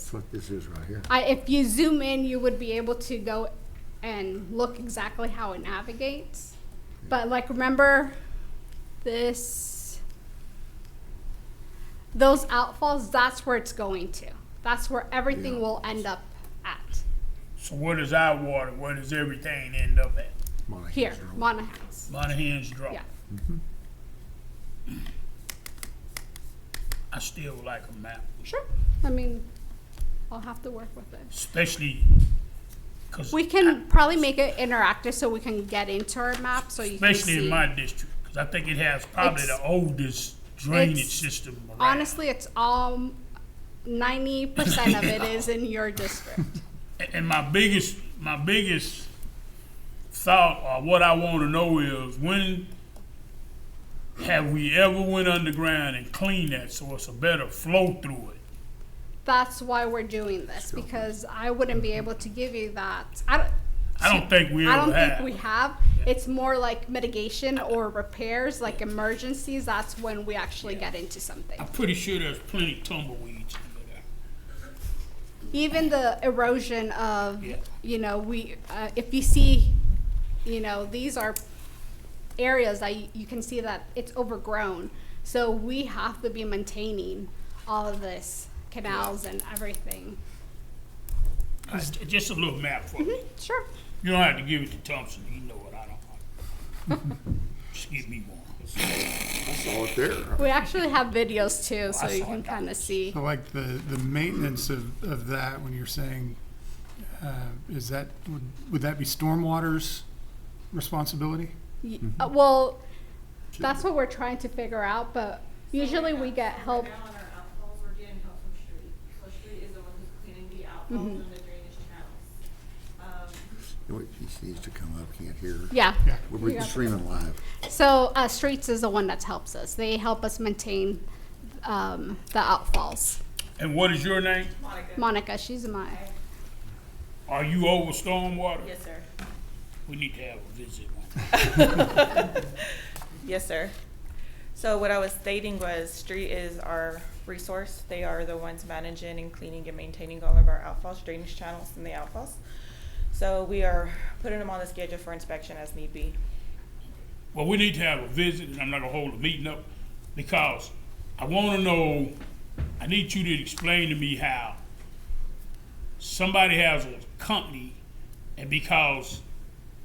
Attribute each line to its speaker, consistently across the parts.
Speaker 1: That's what this is right here.
Speaker 2: I, if you zoom in, you would be able to go and look exactly how it navigates. But like, remember this, those outfalls, that's where it's going to. That's where everything
Speaker 1: Yeah.
Speaker 2: will end up at.
Speaker 3: So where does our water, where does everything end up at?
Speaker 1: Monahan's
Speaker 2: Here,
Speaker 1: Road.
Speaker 2: Monahans.
Speaker 3: Monahan's Draw.
Speaker 2: Yeah.
Speaker 3: I still like a map,
Speaker 2: Sure. I mean, I'll have to work with it.
Speaker 3: especially because,
Speaker 2: We can probably make it interactive so we can get into our map so you can
Speaker 3: especially in
Speaker 2: see.
Speaker 3: my district, because I think it has probably
Speaker 2: It's-
Speaker 3: the oldest drainage
Speaker 2: it's-
Speaker 3: system around.
Speaker 2: Honestly, it's all ninety percent of it is in your district.
Speaker 3: A- And my biggest, my biggest thought or what I want to know is when have we ever went underground and cleaned that so it's a better flow through it?
Speaker 2: That's why we're doing this because I wouldn't be able to give you that. I don't.
Speaker 3: I don't think we
Speaker 2: I
Speaker 3: ever
Speaker 2: don't
Speaker 3: have.
Speaker 2: think we have. It's more like mitigation or repairs, like emergencies. That's when we actually get into something.
Speaker 3: I'm pretty sure there's plenty of tumbleweeds under there.
Speaker 2: even the erosion of,
Speaker 3: Yeah.
Speaker 2: you know, we, uh, if you see, you know, these are areas that you, you can see that it's overgrown. So we have to be maintaining all of this, canals and everything.
Speaker 3: Just, just a little map for me.
Speaker 2: Sure.
Speaker 3: You don't have to give it to Thompson. He know it. I don't. just give me one.
Speaker 1: I saw it there.
Speaker 2: We actually have videos too, so
Speaker 3: Oh, I
Speaker 2: you
Speaker 3: saw
Speaker 2: can
Speaker 3: that.
Speaker 2: kind of see.
Speaker 4: I like the, the maintenance of, of that, when you're saying, uh, is that, would, would that be stormwater's responsibility?
Speaker 2: Y- uh, Well, that's what we're trying to figure out, but usually we get help.
Speaker 5: Right now on our outfalls, we're getting help from Street. So Street is the one who's cleaning the
Speaker 2: Mm-hmm.
Speaker 5: outfalls and the drainage channels. Um,
Speaker 1: You know what, She needs to come up, can't hear her.
Speaker 2: Yeah.
Speaker 4: Yeah.
Speaker 1: We're- We're streaming live.
Speaker 2: So uh, Streets is the one that helps us. They help us maintain um, the outfalls.
Speaker 3: And what is your name?
Speaker 2: Monica, she's my.
Speaker 3: Are you over stormwater?
Speaker 5: Yes, sir.
Speaker 3: We need to have a visit.
Speaker 5: Yes, sir. So what I was stating was Street is our resource. They are the ones managing and cleaning and maintaining all of our outfalls, drainage channels and the outfalls. So we are putting them on the schedule for inspection as need be.
Speaker 3: Well, we need to have a visit, and I'm not gonna hold a meeting up because I want to know. I need you to explain to me how somebody has a company, and because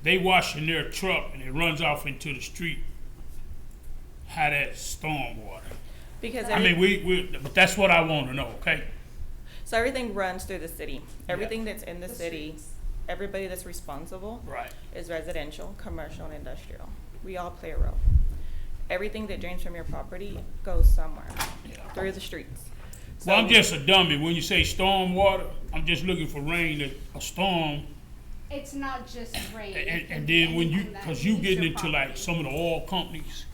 Speaker 3: they washing their truck and it runs off into the street, how that's stormwater.
Speaker 5: Because
Speaker 3: I
Speaker 5: every-
Speaker 3: mean, we, we, but that's what I want to know, okay?
Speaker 5: so everything runs through the city. Everything that's in the city, everybody that's responsible
Speaker 3: Right.
Speaker 5: is residential, commercial, and industrial. We all play a role. Everything that drains from your property goes somewhere, through the streets.
Speaker 3: Well, I'm
Speaker 5: So-
Speaker 3: just a dummy. When you say storm water, I'm just looking for rain, that- a storm,
Speaker 2: It's not just rain.
Speaker 3: and, and- and then when you, cause you getting into like some of the oil companies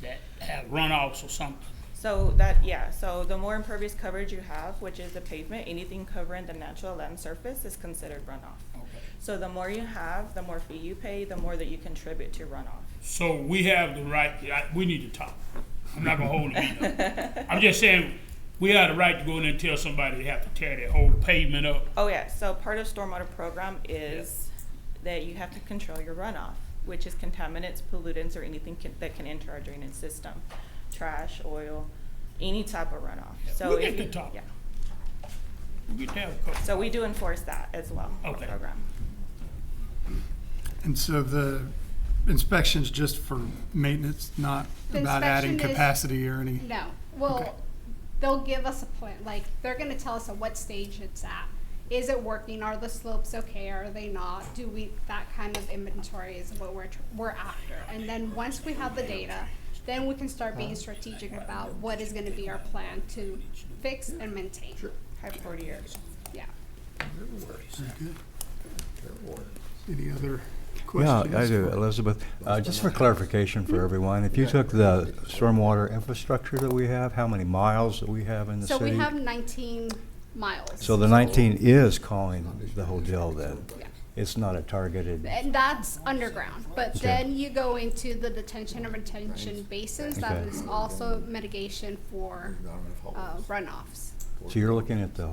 Speaker 3: that have runoffs or something.
Speaker 5: So that, yeah, so the more impervious coverage you have, which is the pavement, anything covering the natural land surface is considered runoff. So the more you have, the more fee you pay, the more that you contribute to runoff.
Speaker 3: So we have the right, I- we need to talk. I'm not gonna hold it up. I'm just saying, we have the right to go in there and tell somebody they have to tear their whole pavement up.
Speaker 5: Oh, yeah, so part of stormwater program is that you have to control your runoff, which is contaminants, pollutants, or anything can- that can enter our drainage system. Trash, oil, any type of runoff. So
Speaker 3: We'll get
Speaker 5: if
Speaker 3: to
Speaker 5: you-
Speaker 3: talk.
Speaker 5: yeah.
Speaker 3: We get to have a couple.
Speaker 5: So we do enforce that as well, our
Speaker 3: Okay.
Speaker 5: program.
Speaker 4: And so the inspection's just for maintenance, not
Speaker 2: The
Speaker 4: about adding
Speaker 2: inspection is-
Speaker 4: capacity or any?
Speaker 2: No, well,
Speaker 4: Okay.
Speaker 2: they'll give us a plan. Like they're gonna tell us at what stage it's at. Is it working? Are the slopes okay? Are they not? Do we that kind of inventory is what we're tr- we're after. And then once we have the data, then we can start being strategic about what is gonna be our plan to fix and maintain.
Speaker 5: High priority areas.
Speaker 2: Yeah.
Speaker 4: Good. Any other
Speaker 6: Yeah,
Speaker 4: questions?
Speaker 6: I do, Elizabeth. Uh, Just for clarification for everyone, if you took the stormwater infrastructure that we have, how many miles that we have in the
Speaker 2: So we
Speaker 6: city?
Speaker 2: have 19 miles.
Speaker 6: So the 19 is calling the whole deal then?
Speaker 2: Yeah.
Speaker 6: It's not a targeted,
Speaker 2: And that's underground, but
Speaker 6: Okay.
Speaker 2: then you go into the detention and retention basins, that
Speaker 6: Okay.
Speaker 2: is also mitigation for
Speaker 1: Not enough
Speaker 2: uh,
Speaker 1: holes.
Speaker 2: runoffs.
Speaker 1: for.
Speaker 6: So you're looking at the